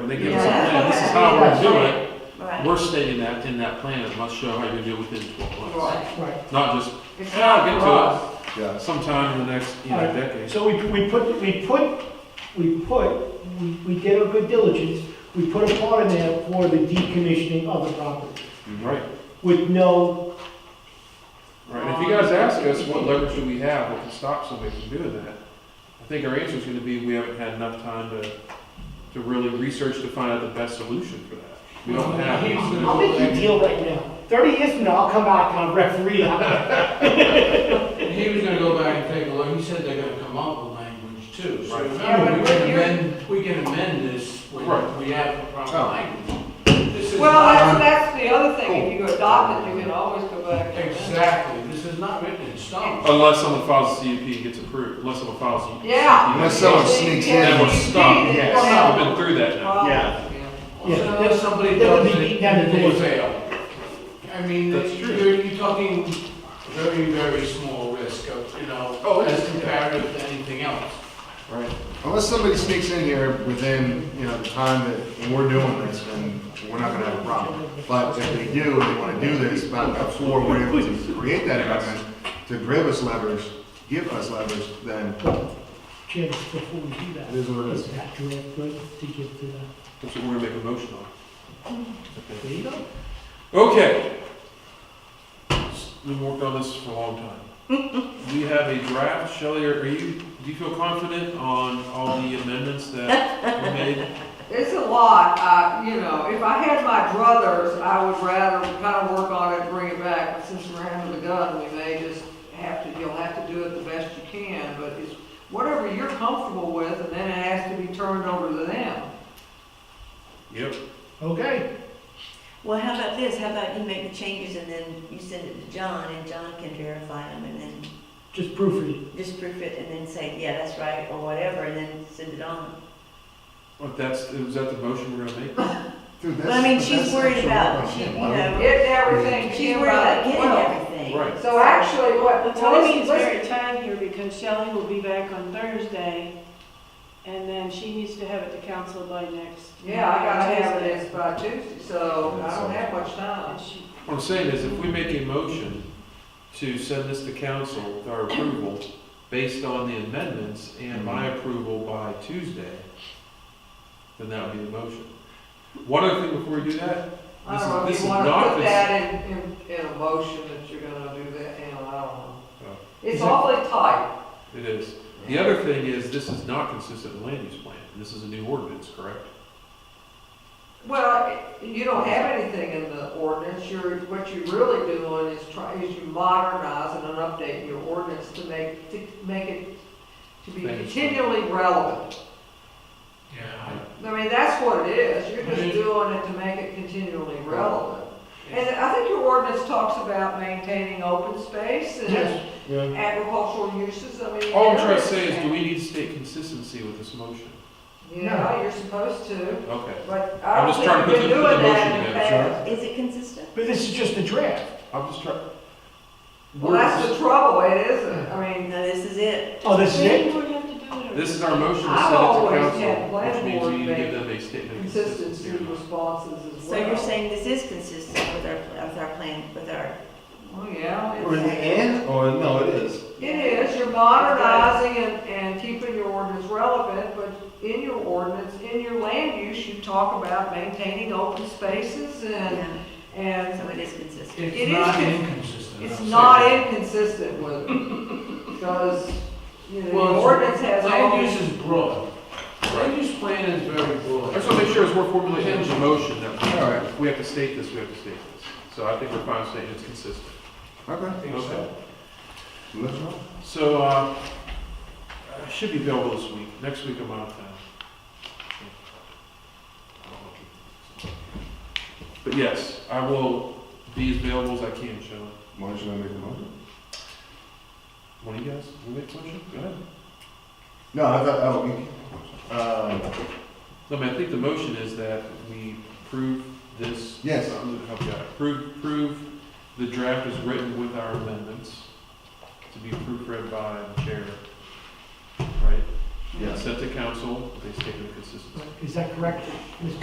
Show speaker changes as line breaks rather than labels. when they give us a
Yeah.
plan, this is how we're gonna do it,
Right.
we're stating that in that plan, it must show how you're gonna do it within twelve months.
Right.
Right.
Not just
It's
Yeah, I'll
not
get
raw.
to
Yeah.
it sometime in the next, you know,
Alright.
decade.
So we, we put, we put, we put, we, we did our good diligence, we put a part in there for the decommissioning of the property
Right,
with no,
right. And If you guys ask us, what leverage do we have that can stop somebody from doing that? I think our answer is gonna be, we haven't had enough time to, to really research to find out the best solution for that. We don't have. the
I'll
solution.
make you a deal right now. Thirty years from now, I'll come back and I'll referee that.
He was gonna go back and take a look, he said they're gonna come up with language too, so
Right.
remember, we
Yeah, but
can
you're-
amend, we can amend this when
Right.
we have the proper
Oh.
language. This is
Well, that's,
not,
that's the other thing, if you adopt it, you can always go back. and-
exactly, this is not written in stone.
Unless someone files a CUP and gets approved, unless someone files a.
Yeah.
Unless someone sneaks in.
Then we're stuck,
Yeah.
yes. We've been through that now.
Yeah.
Yeah.
So unless somebody
That would
does
be
it,
down to
they
this.
fail. I mean,
That's true.
you're, you're talking very, very small risk of, you
Oh,
know,
it's-
as compared to anything else.
Right.
Unless somebody sneaks in here within, you know, the time that when we're doing this, then we're not gonna have a problem. But if they do, and they wanna do this, but before we're able to create that environment, to give us leverage, give us leverage, then
Jim, before we do that,
it is what it
is
is.
that draft good to give to the,
That's what we're gonna make a motion on. Okay.
there you go.
Okay. We've worked on this for a long time. We have a draft, Shelley, are are you, do you feel confident on all the amendments that were made?
It's a lot, uh, you know, if I had my druthers, I would rather kind of work on it and bring it back, but since we're under the gun, we may just have to, you'll have to do it the best you can, but it's whatever you're comfortable with, and then it has to be turned over to them.
Yep.
Okay,
Well, how about this, how about you make the changes and then you send it to John, and John can verify them, and then
just proofread.
just proof it, and then say, yeah, that's right, or whatever, and then send it on.
But that's, is that the motion we're gonna make? Well,
Dude,
But
that's-
I mean, she's
that's
worried
actually
about,
what I
she, you
mean. Why would-
know,
Get everything.
she's
in
worried about
by-
getting
well,
everything.
Right.
So actually,
Well,
what, well,
Tony
listen,
is
listen,
very tight here because Shelley will be back on Thursday, and then she needs to have it to council by next.
yeah, I gotta have it
Tuesday.
as by Tuesday, so I don't have much time.
And she-
What I'm saying is, if we make a motion to send this to council, with our approval, based on the amendments and my approval by Tuesday, then that would be the motion. One other thing before we do that,
I
This
don't
is-
know
this
if
is
you wanna
not
put
this-
that in, in, in a motion that you're gonna do that, you know, I don't
Oh.
know. It's
Is that-
awfully tight.
It is. The other thing is, this is not consistent with land use plan. This is a new ordinance, correct?
Well, you don't have anything in the ordinance, you're, what you're really doing is try, is you modernize and update your ordinance to make, to make it, to be
Thank you.
continually relevant.
Yeah.
I mean, that's what it is, you're
Mhm.
Mm-hmm.
just doing it to make it continually relevant. And I think your ordinance talks about maintaining open space and
Yes,
Yeah.
agricultural uses, I mean.
All I'm trying to
there
say is, do we need to state consistency with this motion?
Yeah, you're supposed to,
Okay.
but
I'm
I don't
just
think
trying to
you've been
put the- put the
doing that in
motion
the
together,
past.
Is it consistent?
but this is just the draft.
I'm just trying.
Well, that's the trouble, it isn't, I mean,
No, this is it.
Oh, this is it?
Maybe we have to do it.
This is our motion to
I've
send it
always
to
had
council, which
planning
means
board
we need to
make
give them a statement. of
consistency
or not.
responses as
So
well.
you're saying this is consistent with our, with our plan, with our,
Oh, yeah,
Or is
it's-
it in, or, no, it is.
it is, you're modernizing and, and keeping your ordinance relevant, but in your ordinance, in your land use, you talk about maintaining open spaces and,
yeah,
and
so it is consistent.
It
It's
is
not
con-
inconsistent.
It's
I'll say
not
that.
inconsistent with, because, you know,
Well,
the ordinance has all
Land
these.
use is broad. Land use plan is very broad.
I just want to make sure as we're formulating the motion that, we- all right, if we have to state this, we have to state this. So I think we're fine stating it's consistent.
Okay.
I think so.
Let's roll.
So, uh, I should be available this week. Next week I'm out of town. But yes, I will be as available as I can, Shelley.
Why don't you make the motion?
One of you guys, will make a motion? Go ahead.
No, I thought, oh, you- uh,
Um, No, I mean, I think the motion is that we prove this.
Yes.
I'm gonna help you out. Prove, prove the draft is written with our amendments to be proofread by the chair, right?
Yes.
Set the council, they state their consistency.
Is that correct, Mr.